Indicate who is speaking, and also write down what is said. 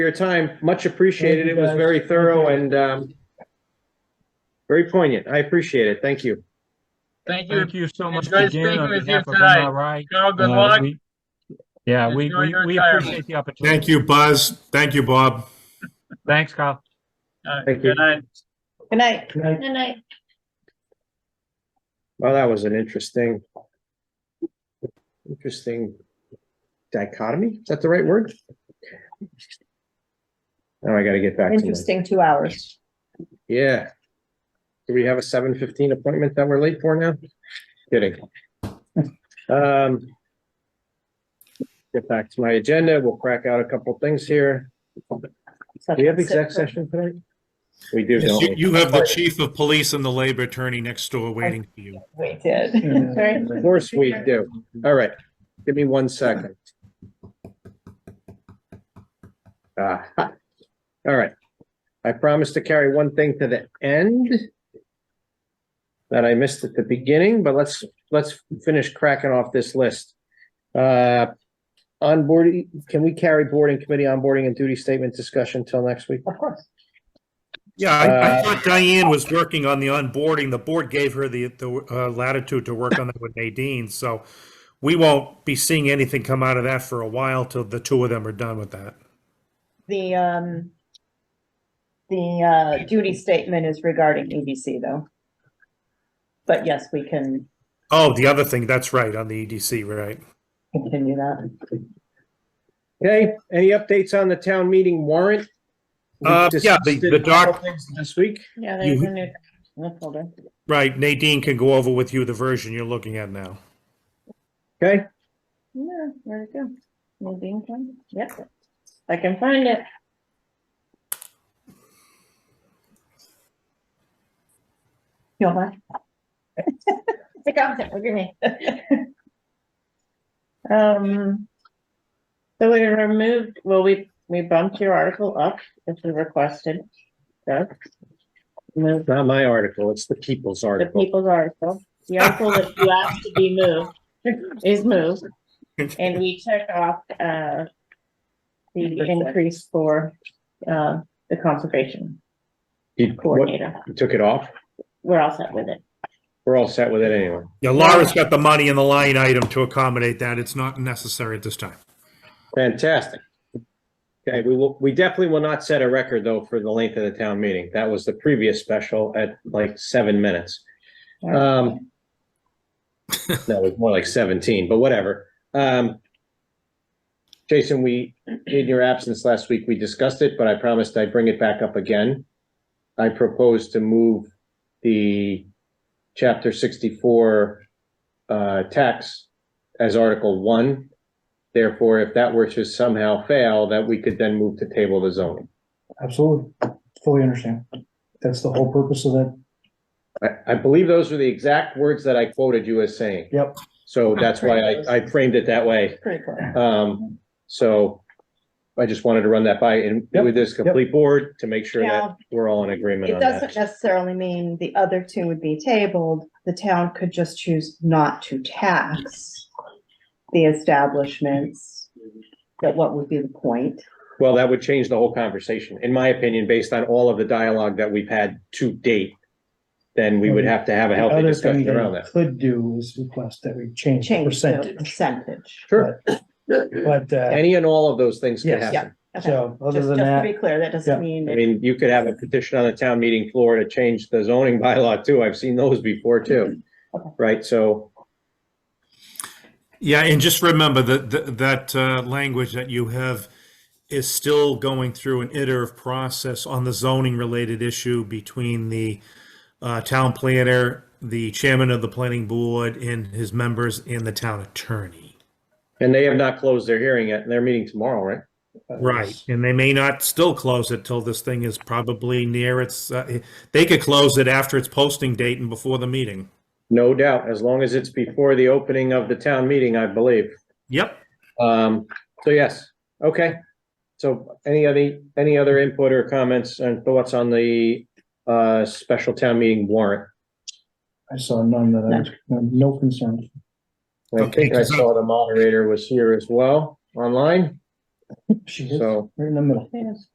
Speaker 1: your time. Much appreciated.
Speaker 2: Thank
Speaker 1: It
Speaker 2: you,
Speaker 1: was
Speaker 2: guys.
Speaker 1: very
Speaker 2: Thank
Speaker 1: thorough
Speaker 2: you.
Speaker 1: and um, very poignant. I appreciate it. Thank you.
Speaker 3: Thank you.
Speaker 2: Thank you so
Speaker 3: It's
Speaker 2: much
Speaker 3: great
Speaker 2: again
Speaker 3: speaking
Speaker 2: on
Speaker 3: with you
Speaker 2: behalf of
Speaker 3: tonight.
Speaker 2: MRI.
Speaker 3: Joe, good
Speaker 2: Uh,
Speaker 3: luck.
Speaker 2: we- Yeah, we,
Speaker 3: Enjoy
Speaker 2: we,
Speaker 3: your
Speaker 2: we
Speaker 3: retirement.
Speaker 2: appreciate the opportunity.
Speaker 4: Thank you, Buzz. Thank you, Bob.
Speaker 2: Thanks, Kyle.
Speaker 3: All right,
Speaker 1: Thank you.
Speaker 3: good night.
Speaker 5: Good night.
Speaker 6: Good night.
Speaker 1: Well, that was an interesting, interesting dichotomy. Is that the right word? Now I gotta get back to my,
Speaker 5: Interesting two hours.
Speaker 1: yeah. Do we have a seven fifteen appointment that we're late for now? Kidding. Um, get back to my agenda. We'll crack out a couple things here.
Speaker 5: So
Speaker 1: Do we have
Speaker 5: that's it
Speaker 1: exec
Speaker 5: for-
Speaker 1: session tonight? We do,
Speaker 4: Yes,
Speaker 1: don't
Speaker 4: You
Speaker 1: we?
Speaker 4: you have the chief of police and the labor attorney next door waiting for you.
Speaker 5: We did. Sorry.
Speaker 1: Of course we do. All right. Give me one second. Ah, ha. All right. I promised to carry one thing to the end that I missed at the beginning, but let's, let's finish cracking off this list. Uh, onboarding, can we carry boarding committee onboarding and duty statement discussion till next week?
Speaker 5: Of course.
Speaker 4: Yeah, I
Speaker 1: Uh,
Speaker 4: I thought Diane was working on the onboarding. The board gave her the the uh, latitude to work on that with Nadine, so we won't be seeing anything come out of that for a while till the two of them are done with that.
Speaker 5: The, um, the, uh, duty statement is regarding EDC though. But yes, we can
Speaker 4: Oh, the other thing, that's right, on the EDC, right?
Speaker 5: continue that.
Speaker 1: Okay, any updates on the town meeting warrant? We
Speaker 4: Uh, yeah, the-
Speaker 1: discussed it
Speaker 4: the doc-
Speaker 1: This week?
Speaker 5: Yeah,
Speaker 4: there's
Speaker 5: there's
Speaker 4: You-
Speaker 5: a
Speaker 4: a
Speaker 5: new, folder.
Speaker 4: Right, Nadine can go over with you the version you're looking at now.
Speaker 1: Okay,
Speaker 5: Yeah, there you go. Nadine can, yep. I can find it. You'll mind? Take off it, look at me. Um, so we removed, well, we, we bumped your article up if you requested. Doug. Moved
Speaker 1: it's not my article, it's the people's
Speaker 5: the
Speaker 1: article.
Speaker 5: people's article. The article that you asked to be moved is moved. And we took off, uh, the increase for, uh, the conservation
Speaker 1: You- what-
Speaker 5: coordinator.
Speaker 1: you took it off?
Speaker 5: We're all set with it.
Speaker 1: We're all set with it anyway.
Speaker 4: Yeah, Laura's got the money in the line item to accommodate that. It's not necessary at this time.
Speaker 1: Fantastic. Okay, we will, we definitely will not set a record though for the length of the town meeting. That was the previous special at like seven minutes. Um. No, it was more like seventeen, but whatever. Um. Jason, we, in your absence last week, we discussed it, but I promised I'd bring it back up again. I propose to move the chapter sixty-four uh tax as article one. Therefore, if that were to somehow fail, that we could then move to table the zoning.
Speaker 7: Absolutely, fully understand. That's the whole purpose of that.
Speaker 1: I, I believe those were the exact words that I quoted you as saying.
Speaker 7: Yep.
Speaker 1: So that's why I, I framed it that way.
Speaker 5: Pretty cool.
Speaker 1: Um, so I just wanted to run that by and
Speaker 7: Yep,
Speaker 1: with this complete board to make sure
Speaker 5: Yeah.
Speaker 1: that we're all in agreement
Speaker 5: It
Speaker 1: on
Speaker 5: doesn't
Speaker 1: that.
Speaker 5: necessarily mean the other two would be tabled. The town could just choose not to tax the establishments. But what would be the point?
Speaker 1: Well, that would change the whole conversation, in my opinion, based on all of the dialogue that we've had to date. Then we would have to have a
Speaker 7: The
Speaker 1: healthy
Speaker 7: Mm-hmm. other thing
Speaker 1: discussion
Speaker 7: that
Speaker 1: around
Speaker 7: you
Speaker 1: that.
Speaker 7: Could do is request that we change the
Speaker 5: Change the
Speaker 7: percentage,
Speaker 5: percentage.
Speaker 1: Sure,
Speaker 7: but, uh,
Speaker 1: any and all of those things could
Speaker 7: Yes.
Speaker 1: happen.
Speaker 5: Okay.
Speaker 7: so, other
Speaker 5: Just,
Speaker 7: than
Speaker 5: just to be
Speaker 7: that,
Speaker 5: clear, that
Speaker 7: yeah.
Speaker 5: doesn't mean.
Speaker 1: I
Speaker 5: it-
Speaker 1: mean, you could have a petition on the town meeting floor to change the zoning bylaw too. I've seen those before too. Right, so,
Speaker 4: Yeah, and just remember that, that- that uh, language that you have is still going through an iterative process on the zoning-related issue between the uh, town planner, the chairman of the planning board, and his members, and the town attorney.
Speaker 1: and they have not closed their hearing yet, and they're meeting tomorrow, right?
Speaker 7: uh,
Speaker 4: Right, and they may not still close it till this thing is probably near its, uh, they could close it after its posting date and before the meeting.
Speaker 1: No doubt, as long as it's before the opening of the town meeting, I believe.
Speaker 4: Yep.
Speaker 1: Um, so yes, okay. So any other, any other input or comments and thoughts on the uh, special town meeting warrant?
Speaker 7: I saw none that I, was- no concern.
Speaker 1: I think I saw the moderator was here as well, online. She is,
Speaker 8: So.
Speaker 1: right in the middle.
Speaker 7: Yes.